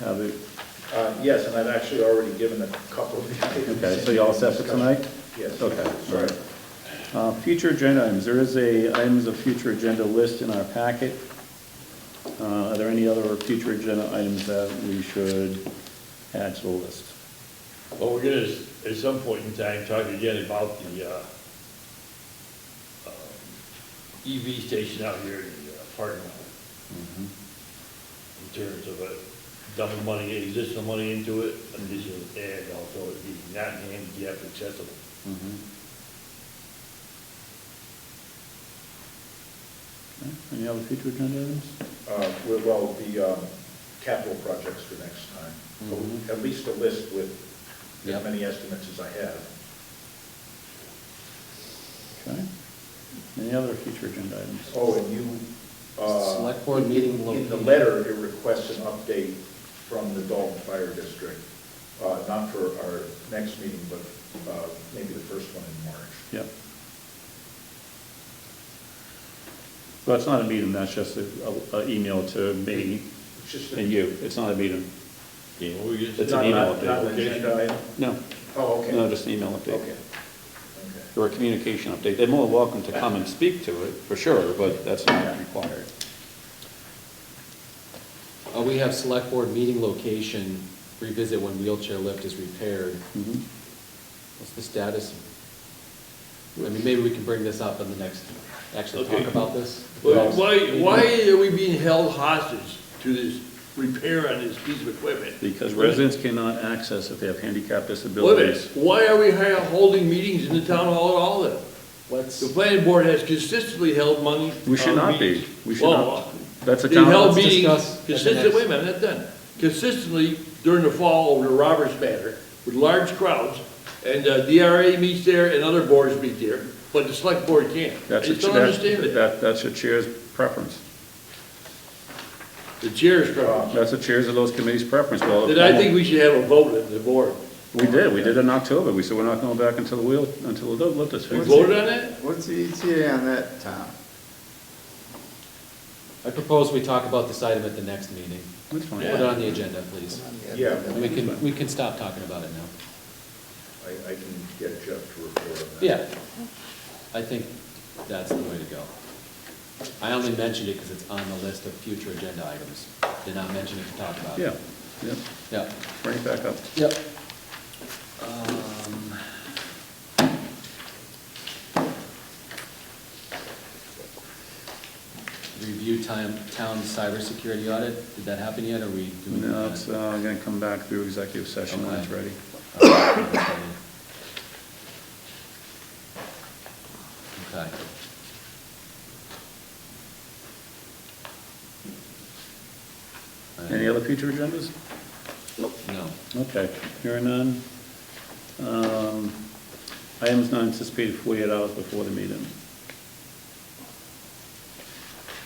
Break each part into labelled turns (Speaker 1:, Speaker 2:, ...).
Speaker 1: Have it,
Speaker 2: Uh, Yes, and I've actually already given a couple of the items.
Speaker 1: okay, so you all set for tonight?
Speaker 2: Yes.
Speaker 1: Okay, all right. Uh, Future agenda items, there is a items of future agenda list in our packet. Uh, Are there any other future agenda items that we should add to the list?
Speaker 3: Well, we're gonna, s- at some point in time, talk again about the, uh, um, EV station out here in the uh, parking lot.
Speaker 1: Mm-hmm.
Speaker 3: In terms of uh, dumping money, additional money into it, additional, and also it being not handicap accessible.
Speaker 1: Okay, Any other future agenda items?
Speaker 2: Uh, we- Well, the um, capital projects for next time,
Speaker 1: Mhm.
Speaker 2: at least a list with
Speaker 4: Yep.
Speaker 2: as many estimates as I have.
Speaker 1: Okay. Any other future agenda items?
Speaker 2: Oh, and you. uh,
Speaker 4: Select board meeting
Speaker 2: In the
Speaker 4: location.
Speaker 2: letter, it requests an update from the Dalton Fire District, uh, not for our next meeting, but uh, maybe the first one in March.
Speaker 1: Yep. Well, it's not a meeting, that's just an email to me
Speaker 2: It's just. a-
Speaker 1: and you. It's not a meeting.
Speaker 3: Okay, what we're gonna
Speaker 1: It's
Speaker 3: say-
Speaker 1: an
Speaker 2: Not-
Speaker 1: email
Speaker 2: not- Not an
Speaker 3: update.
Speaker 2: agenda item?
Speaker 1: No,
Speaker 2: Oh, okay.
Speaker 1: no, just an email update.
Speaker 2: Okay. Okay.
Speaker 1: Or a communication update. They're more than welcome to come and speak to it, for sure, but that's not required.
Speaker 4: Uh, we have select board meeting location revisit when wheelchair lift is repaired.
Speaker 1: Mhm.
Speaker 4: What's the status? I mean, maybe we can bring this up in the next, actually talk
Speaker 3: Okay.
Speaker 4: about this.
Speaker 3: Well, Why, why are we being held hostage to this repair on this piece of equipment?
Speaker 1: Because residents cannot access if they have handicap
Speaker 3: Wait a minute,
Speaker 1: disabilities.
Speaker 3: why are we ha- holding meetings in the town hall at all then?
Speaker 4: Let's,
Speaker 3: The planning board has consistently held money.
Speaker 1: We should
Speaker 3: uh,
Speaker 1: not be.
Speaker 3: meetings.
Speaker 1: We should
Speaker 3: Well,
Speaker 1: not. That's a
Speaker 3: They
Speaker 1: town,
Speaker 3: held
Speaker 4: be- discuss
Speaker 3: meetings
Speaker 4: at the
Speaker 3: consistently,
Speaker 4: next-
Speaker 3: wait a minute, not done. Consistently during the fall over the Roberts matter with large crowds and uh, DRA meets there and other boards meet there, but the select board can't. I
Speaker 1: that's a,
Speaker 3: just don't understand
Speaker 1: that,
Speaker 3: it.
Speaker 1: that- that's a chair's preference.
Speaker 3: The chair's crowd.
Speaker 1: That's a chairs of those committees' preference. Well,
Speaker 3: Then I think we should have a vote at the board.
Speaker 1: We did, we did it in October. We said we're not going back until the wheel, until the lift is
Speaker 3: We
Speaker 1: fixed.
Speaker 3: voted on that?
Speaker 5: What's the ETA on that, Tom?
Speaker 4: I propose we talk about this item at the next meeting.
Speaker 1: That's
Speaker 4: Put
Speaker 1: fine.
Speaker 4: it on the agenda, please.
Speaker 2: Yeah,
Speaker 4: And we can, we can stop talking about it now.
Speaker 2: I, I can get Jeff to report on that.
Speaker 4: Yeah, I think that's the way to go. I only mentioned it because it's on the list of future agenda items. Did not mention it to talk about.
Speaker 1: Yeah, yeah,
Speaker 4: Yep.
Speaker 1: bring it back up.
Speaker 4: Yep. Um, Review time, town cybersecurity audit, did that happen yet, or we doing that?
Speaker 1: No, it's, uh, gonna come back through executive session when it's
Speaker 4: Okay.
Speaker 1: ready.
Speaker 4: Okay.
Speaker 1: Any other future agendas?
Speaker 4: Uh, No.
Speaker 1: Okay, hearing none. Um, Items not anticipated 48 hours before the meeting.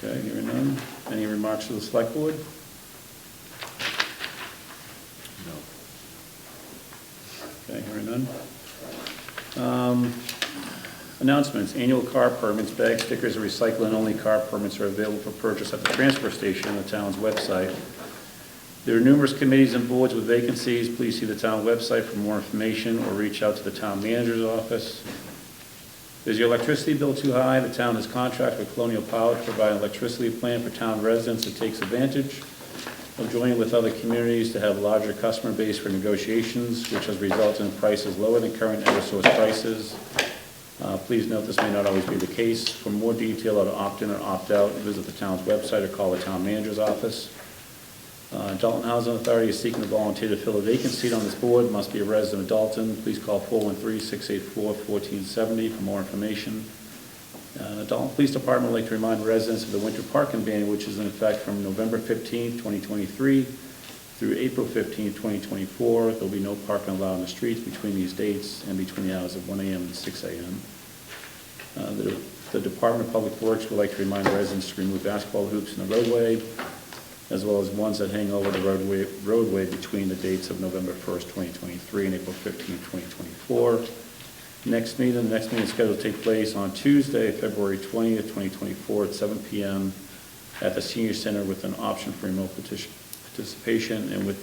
Speaker 1: Okay, hearing none. Any remarks to the select board?
Speaker 4: No.
Speaker 1: Okay, hearing none. Um, Announcements, annual car permits, bag stickers, and recycling only car permits are available for purchase at the transfer station on the town's website. There are numerous committees and boards with vacancies. Please see the town website for more information or reach out to the town manager's office. Is your electricity bill too high? The town has contract with Colonial Power to provide an electricity plan for town residents that takes advantage of joining with other communities to have larger customer base for negotiations, which has resulted in prices lower than current Eversource prices. Uh, Please note, this may not always be the case. For more detail on opt-in or opt-out, visit the town's website or call the town manager's office. Uh, Dalton Housing Authority is seeking a volunteer to fill a vacant seat on this board, must be a resident of Dalton. Please call 413-684-1470 for more information. Uh, The Dalton Police Department would like to remind residents of the winter parking ban, which is in effect from November 15, 2023 through April 15, 2024. There'll be no parking allowed on the streets between these dates and between the hours of 1 AM and 6 AM. Uh, The the Department of Public Works would like to remind residents to remove basketball hoops in the roadway, as well as ones that hang over the roadway, roadway between the dates of November 1st, 2023 and April 15th, 2024. Next meeting, the next meeting is scheduled to take place on Tuesday, February 20th, 2024, at 7 PM at the Senior Center with an option for remote partic- participation and with